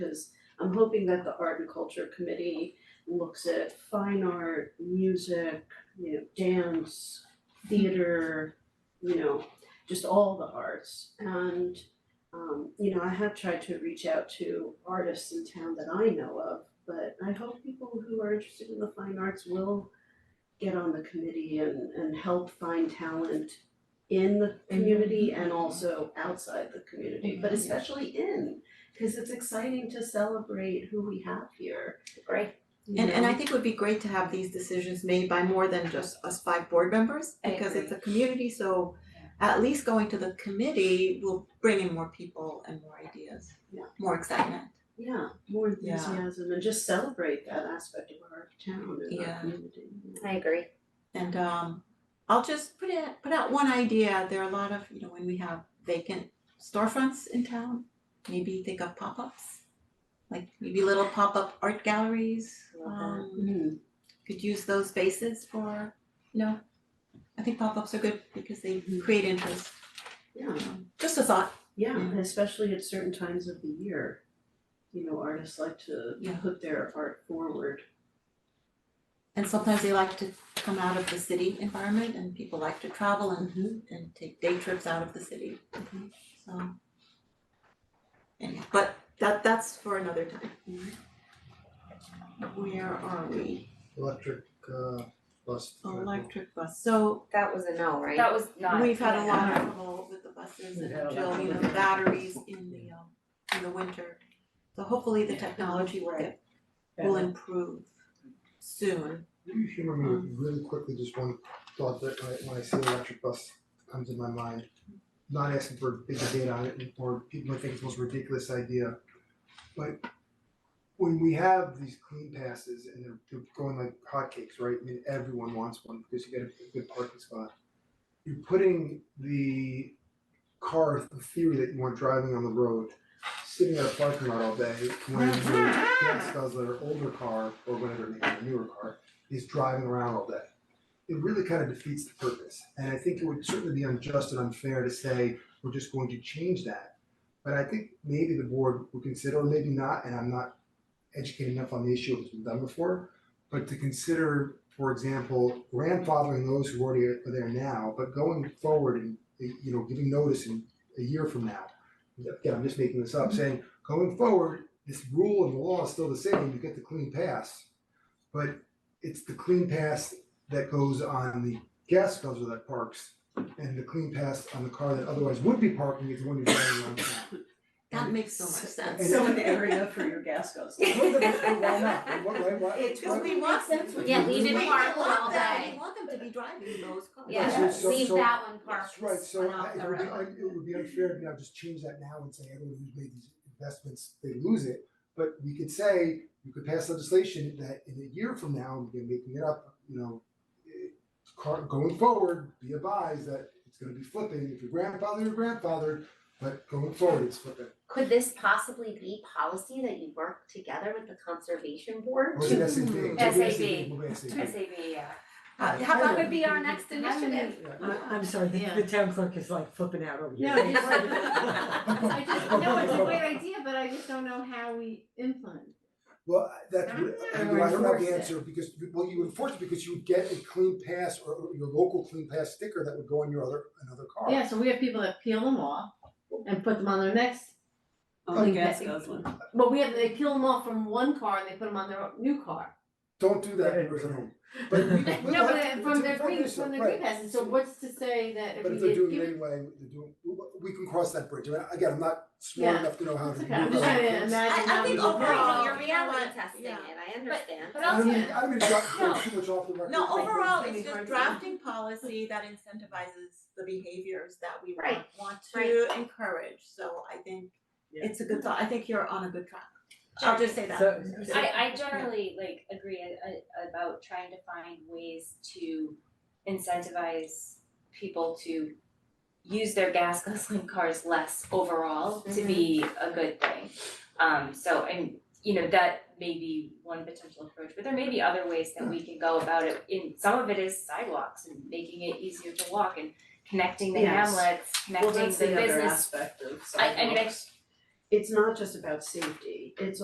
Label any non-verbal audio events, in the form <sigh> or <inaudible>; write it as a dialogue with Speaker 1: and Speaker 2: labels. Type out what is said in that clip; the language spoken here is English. Speaker 1: Cause I'm hoping that the art and culture committee looks at fine art, music, you know, dance, theater, you know, just all the arts. And um, you know, I have tried to reach out to artists in town that I know of, but I hope people who are interested in the fine arts will get on the committee and and help find talent in the community and also outside the community, but
Speaker 2: Mm-hmm.
Speaker 1: especially in, cause it's exciting to celebrate who we have here,
Speaker 3: Great.
Speaker 1: you
Speaker 2: And and I
Speaker 1: know?
Speaker 2: think it would be great to have these decisions made by more than just us five board members,
Speaker 3: I
Speaker 2: because
Speaker 3: agree.
Speaker 2: it's a community, so at least going to the committee will bring in more people and more ideas,
Speaker 1: Yeah.
Speaker 2: more excitement.
Speaker 1: Yeah, more
Speaker 2: Yeah.
Speaker 1: enthusiasm and just celebrate that aspect of our town and our
Speaker 2: Yeah.
Speaker 1: community.
Speaker 3: I agree.
Speaker 2: And um I'll just put it, put out one idea, there are a lot of, you know, when we have vacant storefronts in town, maybe think of pop-ups. Like maybe little pop-up art galleries,
Speaker 3: Love that.
Speaker 2: um
Speaker 1: Mhm.
Speaker 2: could use those spaces for, you know, I think pop-ups are good because they
Speaker 1: Mhm.
Speaker 2: create interest.
Speaker 1: Yeah,
Speaker 2: Um, Just a thought.
Speaker 1: yeah,
Speaker 2: Yeah.
Speaker 1: and especially at certain times of the year. You know, artists like to
Speaker 2: Yeah.
Speaker 1: put their art forward.
Speaker 2: And sometimes they like to come out of the city environment and people like to travel and and take day trips out of the city. So anyhow, but that that's for another time. Mm-hmm. Where are we?
Speaker 4: electric uh bus. driver.
Speaker 2: Electric bus. So
Speaker 3: That was a no, right?
Speaker 5: That was not.
Speaker 2: we've had a
Speaker 5: yeah.
Speaker 2: lot of trouble with the buses
Speaker 4: We've
Speaker 2: and
Speaker 4: had a lot
Speaker 2: Jill,
Speaker 4: of
Speaker 2: you know,
Speaker 4: trouble.
Speaker 2: batteries in the um in the winter. So hopefully the technology will get will improve soon.
Speaker 4: You humor me really quickly, just one thought that when I when I see electric bus comes in my mind. Not asking for bigger data on it or people might think it's the most ridiculous idea. But when we have these clean passes and they're they're going like hotcakes, right? I mean, everyone wants one because you get a good parking spot. You're putting the car, the theory that you weren't driving on the road, sitting at a parking lot all day, when your parents' spouse, their older car or whatever, maybe a newer car, is driving around all day. It really kind of defeats the purpose, and I think it would certainly be unjust and unfair to say, we're just going to change that. But I think maybe the board would consider, or maybe not, and I'm not educated enough on the issue, it's been done before, but to consider, for example, grandfathering those who already are there now, but going forward and, you know, giving notice in a year from now. Again, I'm just making this up, saying, going forward, this rule and the law is still the same, you get the clean pass. But it's the clean pass that goes on the gas guzzler that parks and the clean pass on the car that otherwise would be parking is the one you're driving around town.
Speaker 2: That makes so much sense.
Speaker 1: So
Speaker 2: <laughs>
Speaker 1: an
Speaker 3: <laughs>
Speaker 1: area for your gas goes.
Speaker 4: Well, then, why not? Why- why- why-
Speaker 2: It's
Speaker 4: why-
Speaker 2: because <laughs> we want them to.
Speaker 3: Yeah, leave it
Speaker 2: We
Speaker 3: parked
Speaker 2: want
Speaker 3: all
Speaker 2: them-
Speaker 3: day.
Speaker 2: We want them to be driving those cars.
Speaker 3: Yeah,
Speaker 4: so-
Speaker 3: leave
Speaker 4: so-
Speaker 3: that one
Speaker 4: That's
Speaker 3: parked
Speaker 4: right, so
Speaker 3: one
Speaker 4: I-
Speaker 3: off
Speaker 4: it
Speaker 3: the
Speaker 4: would be,
Speaker 3: road.
Speaker 4: un- it would be unfair to now just change that now and say everyone who's made these investments, they lose it. But we could say, you could pass legislation that in a year from now, we're making it up, you know, eh, car, going forward, be advised that it's gonna be flipping, if your grandfather, your grandfather, but going forward, it's flipping.
Speaker 3: Could this possibly be policy that you work together with the conservation board?
Speaker 4: Or is it SAB? Maybe
Speaker 5: SAB.
Speaker 4: maybe SAB.
Speaker 5: SAB, yeah.
Speaker 2: Uh, how about
Speaker 3: That would be our next initiative.
Speaker 4: Yeah.
Speaker 6: I I'm sorry, the the town clerk is like flipping out over here.
Speaker 7: No, he's I just, no, it's a great
Speaker 4: Well,
Speaker 7: idea, but I just don't know how we implement. it.
Speaker 4: I- that's, I
Speaker 7: Or
Speaker 4: don't know
Speaker 7: enforce
Speaker 4: the
Speaker 7: it.
Speaker 4: answer, because, you- well, you enforce it because you would get a clean pass or or your local clean pass sticker that would go on your other, another car.
Speaker 7: Yeah, so we have people that peel them off and put them on their next,
Speaker 1: Only
Speaker 7: Only
Speaker 1: Oh, gas
Speaker 2: <laughs>
Speaker 7: gas
Speaker 1: goes
Speaker 7: but we have, they peel them off from one car and they put them on their new car.
Speaker 4: Don't do that, person at home. But we, we
Speaker 7: <laughs> No,
Speaker 4: have to-
Speaker 7: but they-
Speaker 4: to
Speaker 7: from their
Speaker 4: enforce
Speaker 7: green,
Speaker 4: it,
Speaker 7: from their
Speaker 4: right.
Speaker 7: green passes, so what's to say that if
Speaker 4: But
Speaker 7: we
Speaker 4: if they're
Speaker 7: did
Speaker 4: doing
Speaker 7: give
Speaker 4: it
Speaker 7: it?
Speaker 4: anyway, they're doing, we can cross that bridge, I mean, again, I'm not smart
Speaker 7: Yeah.
Speaker 4: enough to know how to.
Speaker 7: It's
Speaker 4: do
Speaker 7: okay, I'm just
Speaker 4: that.
Speaker 7: trying to imagine
Speaker 2: I
Speaker 7: how we
Speaker 2: think
Speaker 7: would
Speaker 2: overall,
Speaker 7: work.
Speaker 3: Right,
Speaker 2: you
Speaker 3: you're
Speaker 2: know
Speaker 3: reality
Speaker 2: what?
Speaker 3: testing it,
Speaker 2: Yeah.
Speaker 3: I understand.
Speaker 5: But
Speaker 4: I don't
Speaker 5: also,
Speaker 4: mean, I don't mean to drop,
Speaker 5: No.
Speaker 4: too much off the record.
Speaker 2: No,
Speaker 4: but-
Speaker 2: overall,
Speaker 7: Like,
Speaker 2: it's just
Speaker 7: like-
Speaker 2: drafting policy that incentivizes the behaviors that we want,
Speaker 3: Right,
Speaker 2: want to
Speaker 3: right.
Speaker 2: encourage, so I think
Speaker 6: Yeah.
Speaker 2: it's a good thought, I think you're on a good track. I'll just say that.
Speaker 6: So-
Speaker 5: I I generally like agree a- a- about trying to find ways to incentivize people to use their gas <laughs> guzzling cars less overall to be
Speaker 1: Mm-hmm.
Speaker 5: a good thing. Um so and you know, that may be one potential approach, but there may be other ways that we can go about it. In some of it is sidewalks and making it easier to walk and connecting the
Speaker 1: Yes.
Speaker 5: hamlets,
Speaker 1: Well,
Speaker 5: connecting the
Speaker 1: that's
Speaker 5: business
Speaker 1: the other aspect of
Speaker 5: I- I mean, I-
Speaker 1: sidewalks. it's not just about safety, it's